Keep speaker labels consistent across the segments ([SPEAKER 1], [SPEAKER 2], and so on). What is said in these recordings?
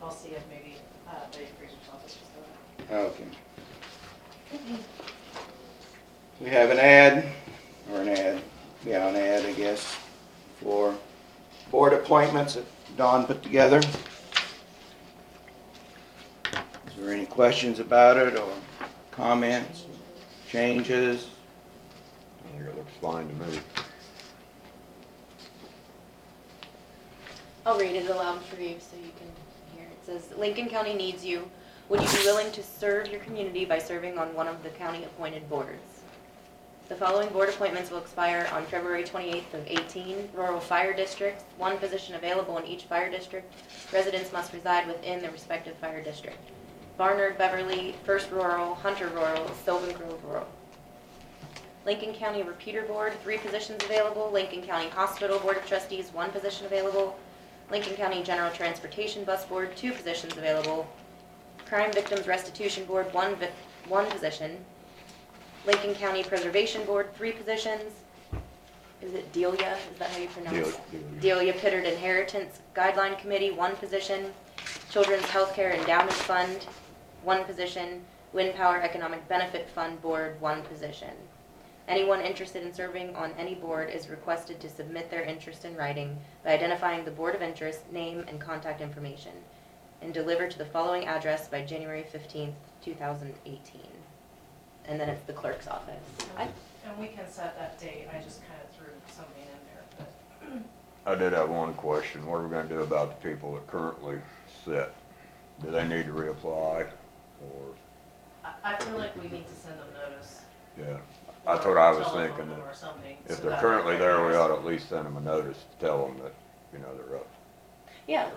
[SPEAKER 1] we'll see if maybe uh, the appraisers office is still out.
[SPEAKER 2] Okay. We have an ad, or an ad, yeah, an ad, I guess, for board appointments that Don put together. Is there any questions about it, or comments, changes?
[SPEAKER 3] I think it looks fine to me.
[SPEAKER 4] I'll read it aloud for you so you can hear. It says, Lincoln County needs you. Would you be willing to serve your community by serving on one of the county-appointed boards? The following board appointments will expire on February 28th of 18. Rural Fire Districts, one position available in each fire district. Residents must reside within the respective fire district. Barnard, Beverly, First Rural, Hunter Rural, Sylvan Grove Rural. Lincoln County Repeater Board, three positions available. Lincoln County Hospital Board of Trustees, one position available. Lincoln County General Transportation Bus Board, two positions available. Crime Victims Restitution Board, one, vic- one position. Lincoln County Preservation Board, three positions. Is it Delia? Is that how you pronounce it?
[SPEAKER 3] Delia- Delia.
[SPEAKER 4] Delia Pittard Inheritance Guideline Committee, one position. Children's Healthcare Endowment Fund, one position. Wind Power Economic Benefit Fund Board, one position. Anyone interested in serving on any board is requested to submit their interest in writing by identifying the board of interest, name, and contact information, and deliver to the following address by January fifteenth, two thousand eighteen. And then it's the clerk's office. I,
[SPEAKER 1] And we can set that date, I just kind of threw something in there, but
[SPEAKER 3] I did have one question. What are we gonna do about the people that currently sit? Do they need to reapply or,
[SPEAKER 1] I, I feel like we need to send them notice.
[SPEAKER 3] yeah?
[SPEAKER 1] or
[SPEAKER 3] That's what I was
[SPEAKER 1] telephone
[SPEAKER 3] thinking.
[SPEAKER 1] them
[SPEAKER 3] that
[SPEAKER 1] Or something.
[SPEAKER 3] If
[SPEAKER 1] so
[SPEAKER 3] they're
[SPEAKER 1] that
[SPEAKER 3] currently
[SPEAKER 1] they're
[SPEAKER 3] there, we
[SPEAKER 1] noticed.
[SPEAKER 3] ought to at least send them a notice to tell them that, you know, they're up.
[SPEAKER 4] yeah,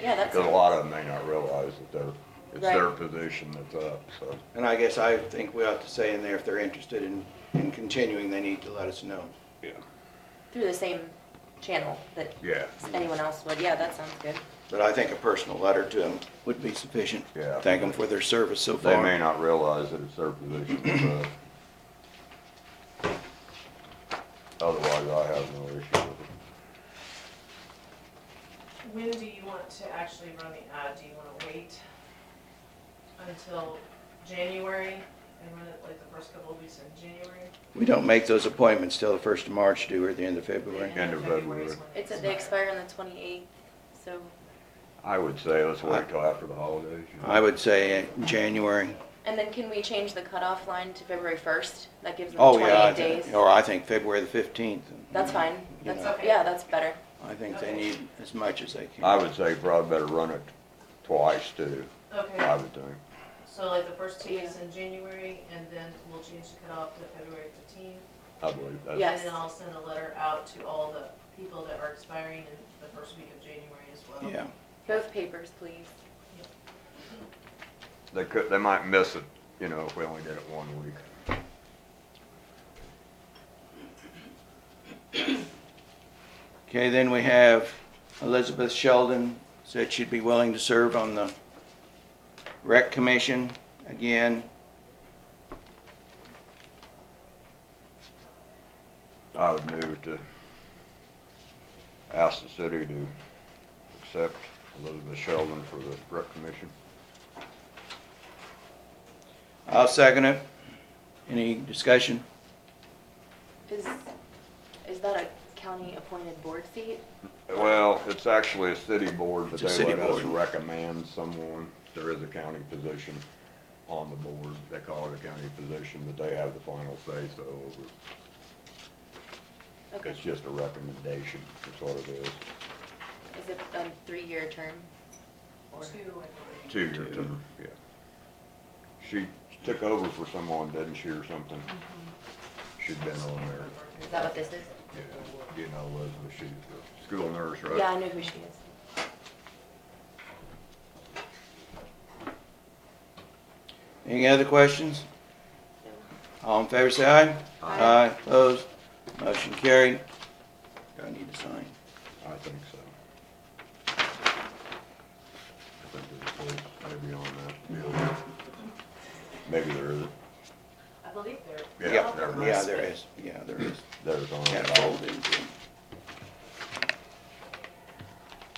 [SPEAKER 4] yeah, that's,
[SPEAKER 3] Because a lot of them may not realize that they're, it's
[SPEAKER 4] Right.
[SPEAKER 3] their position that's up, so.
[SPEAKER 2] And I guess I think we ought to say in there, if they're interested in, in continuing, they need to let us know.
[SPEAKER 3] Yeah.
[SPEAKER 4] through the same channel that
[SPEAKER 3] Yeah,
[SPEAKER 4] anyone else would. Yeah, that sounds good.
[SPEAKER 2] But I think a personal letter to them would be sufficient.
[SPEAKER 3] Yeah.
[SPEAKER 2] Thank them for their service so far.
[SPEAKER 3] they may not realize that it's their position, but otherwise I have no issue with it.
[SPEAKER 1] When do you want to actually run the ad? Do you want to wait until January and run it like the first couple of weeks in January?
[SPEAKER 2] We don't make those appointments till the first of March, do we, or the end of February?
[SPEAKER 1] And
[SPEAKER 3] End of
[SPEAKER 1] February is
[SPEAKER 3] February.
[SPEAKER 1] when they
[SPEAKER 4] It said they expire on the twenty-eighth, so,
[SPEAKER 3] I would say let's wait till after the holidays. you know.
[SPEAKER 2] I would say January.
[SPEAKER 4] and then can we change the cutoff line to February first? That gives them
[SPEAKER 2] Oh, yeah, I
[SPEAKER 4] twenty-eight
[SPEAKER 2] think-
[SPEAKER 4] days.
[SPEAKER 2] or I think February the fifteenth.
[SPEAKER 4] That's fine.
[SPEAKER 2] You
[SPEAKER 4] That's,
[SPEAKER 1] know.
[SPEAKER 4] yeah, that's better.
[SPEAKER 2] I think they need as much as they can.
[SPEAKER 3] I would say probably better run it twice too, I
[SPEAKER 1] Okay,
[SPEAKER 3] would think.
[SPEAKER 1] so like the first two weeks in January, and then we'll change the cutoff to February fifteenth.
[SPEAKER 3] I believe
[SPEAKER 4] Yeah.
[SPEAKER 3] that's,
[SPEAKER 1] And
[SPEAKER 4] Yes.
[SPEAKER 1] then I'll send a letter out to all the people that are expiring in the first week of January as well.
[SPEAKER 2] Yeah,
[SPEAKER 4] Both papers, please.
[SPEAKER 3] they could, they might miss it, you know, if we only did it one week.
[SPEAKER 2] okay, then we have Elizabeth Sheldon said she'd be willing to serve on the rec commission again.
[SPEAKER 3] I would move to ask the city to accept Elizabeth Sheldon for the rec commission.
[SPEAKER 2] I'll second it. Any discussion?
[SPEAKER 4] Is, is that a county-appointed board seat?
[SPEAKER 3] Well, it's actually a city board, but
[SPEAKER 2] It's a
[SPEAKER 3] they
[SPEAKER 2] city
[SPEAKER 3] let us
[SPEAKER 2] board.
[SPEAKER 3] recommend someone. There is a county position on the board. They call it a county position, but they have the final say, so over
[SPEAKER 4] Okay.
[SPEAKER 3] It's just a recommendation, that's what it is.
[SPEAKER 4] Is it a three-year term? Or-
[SPEAKER 1] Two, I believe.
[SPEAKER 3] Two-year term, yeah. She took over for someone, didn't she, or something?
[SPEAKER 4] Mm-hmm.
[SPEAKER 3] She'd been on there,
[SPEAKER 4] Is that what this is?
[SPEAKER 3] yeah. You know, Elizabeth, she's the school nurse, right?
[SPEAKER 4] Yeah, I know who she is.
[SPEAKER 2] Any other questions? All in favor, say aye.
[SPEAKER 4] Aye.
[SPEAKER 2] opposed, motion carried. I need to sign.
[SPEAKER 3] I think so. I think there's a place maybe on that building. Maybe there isn't.
[SPEAKER 1] I believe they're.
[SPEAKER 3] Yeah,
[SPEAKER 2] Yep.
[SPEAKER 3] there
[SPEAKER 2] Yeah, there is, yeah, there is.
[SPEAKER 3] There's on
[SPEAKER 2] Yeah,
[SPEAKER 3] it.
[SPEAKER 2] fold into it.